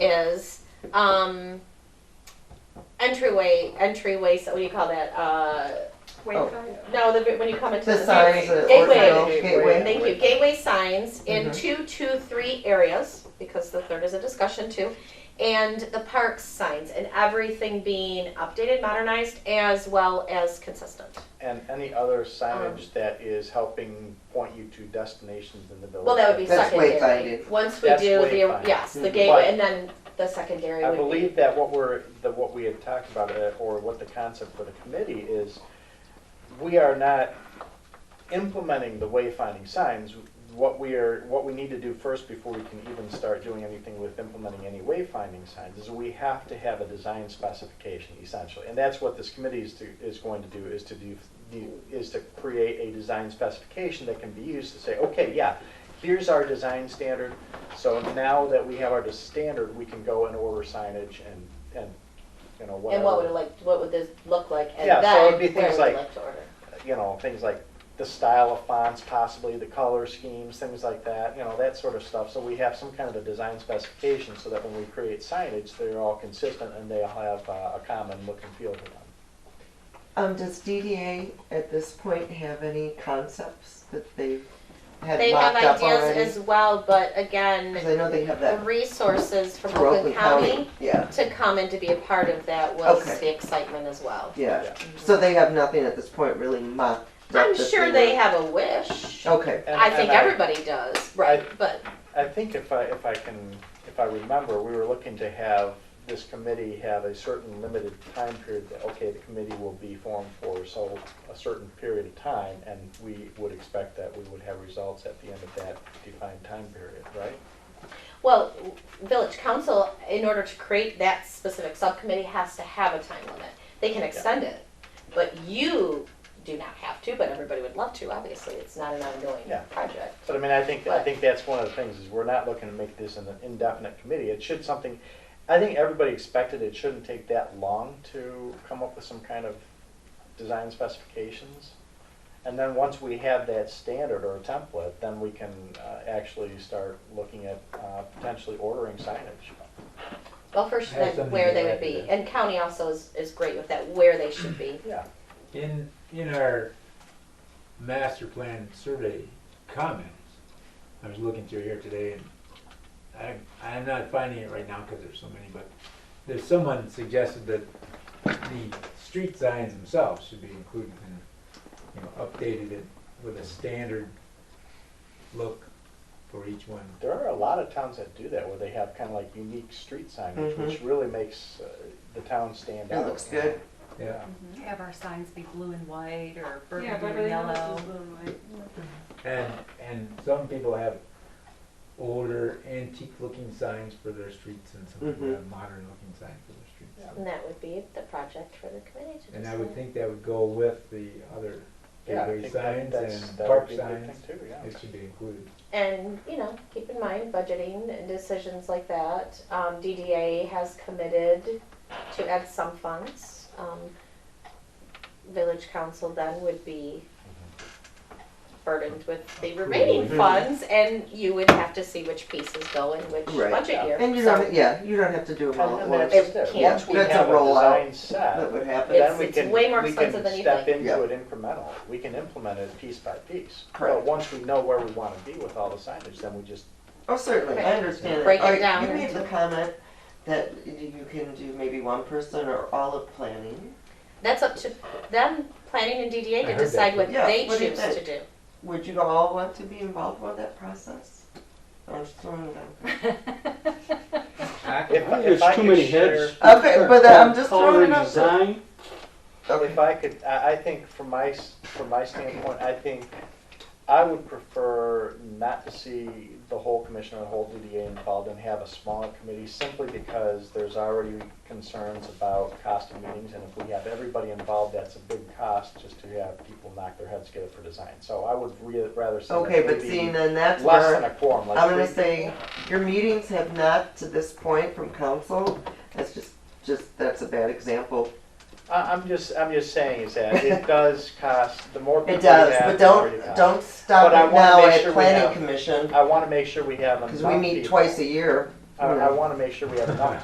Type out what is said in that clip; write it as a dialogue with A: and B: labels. A: is um, entryway, entryways. What do you call that? Uh,
B: Wayfinder.
A: no, the, when you come into
C: The
A: the
C: signs, the Ortonville
A: gateway.
C: gateway.
A: Thank you. Gateway signs in
C: Mhm.
A: two, two, three areas because the third is a discussion too, and the parks signs and everything being updated, modernized, as well as consistent.
D: And any other signage that is helping point you to destinations in the village?
A: Well, that would be
C: That's
A: secondary.
C: wayfinding.
A: Once we
D: That's
A: do the,
D: wayfinding.
A: yes, the
D: Mhm.
A: gateway, and then the secondary
D: I
A: would be.
D: believe that what we're, that what we had talked about, uh, or what the concept for the committee is, we are not implementing the wayfinding signs. What we are, what we need to do first before we can even start doing anything with implementing any wayfinding signs is we have to have a design specification essentially. And that's what this committee is to, is going to do, is to do, is to create a design specification that can be used to say, okay, yeah, here's our design standard. So now that we have our dis- standard, we can go and order signage and, and, you know, whatever.
A: And what would it like, what would this look like? And
D: Yeah, so
A: then
D: it'd be
A: where
D: things
A: would you
D: like-
A: to order?
D: you know, things like the style of fonts possibly, the color schemes, things like that, you know, that sort of stuff. So we have some kind of a design specification so that when we create signage, they're all consistent and they all have uh, a common look and feel to them.
C: Um, does DDA at this point have any concepts that they've had
A: They have
C: mocked up
A: ideas
C: already?
A: as well, but again,
C: Because I know they have
A: the
C: that
A: resources from
C: for Oakland County. Yeah,
A: to come and to be a part of that was
C: Okay.
A: the excitement as well.
C: yeah. So they have nothing at this point really mocked up.
A: I'm
C: that Oh,
A: sure
C: were-
A: they have a wish.
C: Okay,
D: And-
A: I think
D: and
A: everybody does, right? But
D: I think if I, if I can, if I remember, we were looking to have this committee have a certain limited time period that, okay, the committee will be formed for so, a certain period of time, and we would expect that we would have results at the end of that defined time period, right?
A: well, village council, in order to create that specific subcommittee, has to have a time limit. They can extend it, but you do not have to. But everybody would love to. Obviously, it's not an ongoing
D: Yeah.
A: project.
D: But I mean, I think, I think that's one of the things, is we're not looking to make this an indefinite committee. It should something, I think everybody expected it shouldn't take that long to come up with some kind of design specifications. And then once we have that standard or template, then we can uh, actually start looking at uh, potentially ordering signage.
A: Well, first,
E: I have
A: then
E: something
A: where
E: to
A: they
E: add
A: would
E: to
A: be,
E: that.
A: and county also is, is great with that, where they should be.
D: Yeah,
E: In, in our master plan survey comments, I was looking through here today and I, I'm not finding it right now because there's so many, but there's someone suggested that the street signs themselves should be included and, you know, updated it with a standard look for each one.
D: there are a lot of towns that do that, where they have kind of like unique street signage,
C: Mhm.
D: which really makes uh, the town stand
C: it
D: out.
C: looks good.
E: Yeah,
F: Have our signs be blue and white or
B: Yeah,
F: burgundy and
B: Beverly Hills
F: yellow?
B: is blue and white.
E: and, and some people have older antique looking signs for their streets and some people
C: Mhm.
D: Mm-hmm.
E: have modern looking signs for their streets.
A: And that would be the project for the committee to
E: And I would
A: decide.
E: think that would go with the other
D: Yeah, I
E: gateway
D: think that-
E: signs
D: that's-
E: and
D: that would
E: park
D: be a good
E: signs.
D: thing too, yeah.
E: It should be included.
A: And, you know, keep in mind budgeting and decisions like that. Um, DDA has committed to add some funds. Um, village council then would be burdened with the remaining
E: Approving.
A: funds and you would have to see which pieces go in which
C: Right.
A: budget year.
C: And you
A: So-
C: don't, yeah, you don't have to do them all at
D: And
C: once.
D: that's
A: It
D: it.
A: can't.
D: Once we
C: That's a
D: have a
C: rollout.
D: design
C: That
D: set,
C: would happen.
D: then
A: It's-
D: we
A: it's
D: can,
A: way more
D: we
A: expensive than
D: can
A: you
D: step
A: think.
C: Yeah.
D: into it incremental. We can implement it piece by piece. But
C: Correct.
D: once we know where we want to be with all the signage, then we just,
C: Oh, certainly, I
A: Right.
C: understand that.
A: Break it
C: All right,
A: down
C: You made
A: into-
C: the comment that you can do maybe one person or all of planning,
A: That's up to them, planning and
E: I
A: DDA, to
E: heard that.
A: decide what
C: Yeah,
A: they
C: what do you
A: choose
C: think?
A: to do.
C: would you all want to be involved with that process? I'm just throwing it out there.
D: if,
G: I think
D: if I
G: There's too many
D: could share,
G: heads.
C: Okay, but uh, I'm just
G: Color
C: throwing
G: and
C: it out there.
G: design.
C: Okay.
D: if I could, I, I think from my, s- from my standpoint, I think I would prefer not to see the whole commission or the whole DDA involved and have a smaller committee simply because there's already concerns about cost of meetings. And if we have everybody involved, that's a big cost just to have people knock their heads together for design. So I would re- rather see.
C: Okay, but
D: maybe
C: seeing then that's
D: Less than a
C: where,
D: quorum, like.
C: I'm gonna
D: three
C: say,
D: people.
C: your meetings have not to this point from council, that's just, just, that's a bad example.
D: I, I'm just, I'm just saying is that it does cost, the more people
C: It
D: we have.
C: does, but
D: the more it
C: don't,
D: costs.
C: don't stop
D: But I
C: it
D: wanna
C: now
D: make
C: at
D: sure we
C: planning
D: have-
C: commission,
D: I wanna make sure we have enough
C: cause we meet
D: people.
C: twice a year.
D: I, I wanna make sure we have enough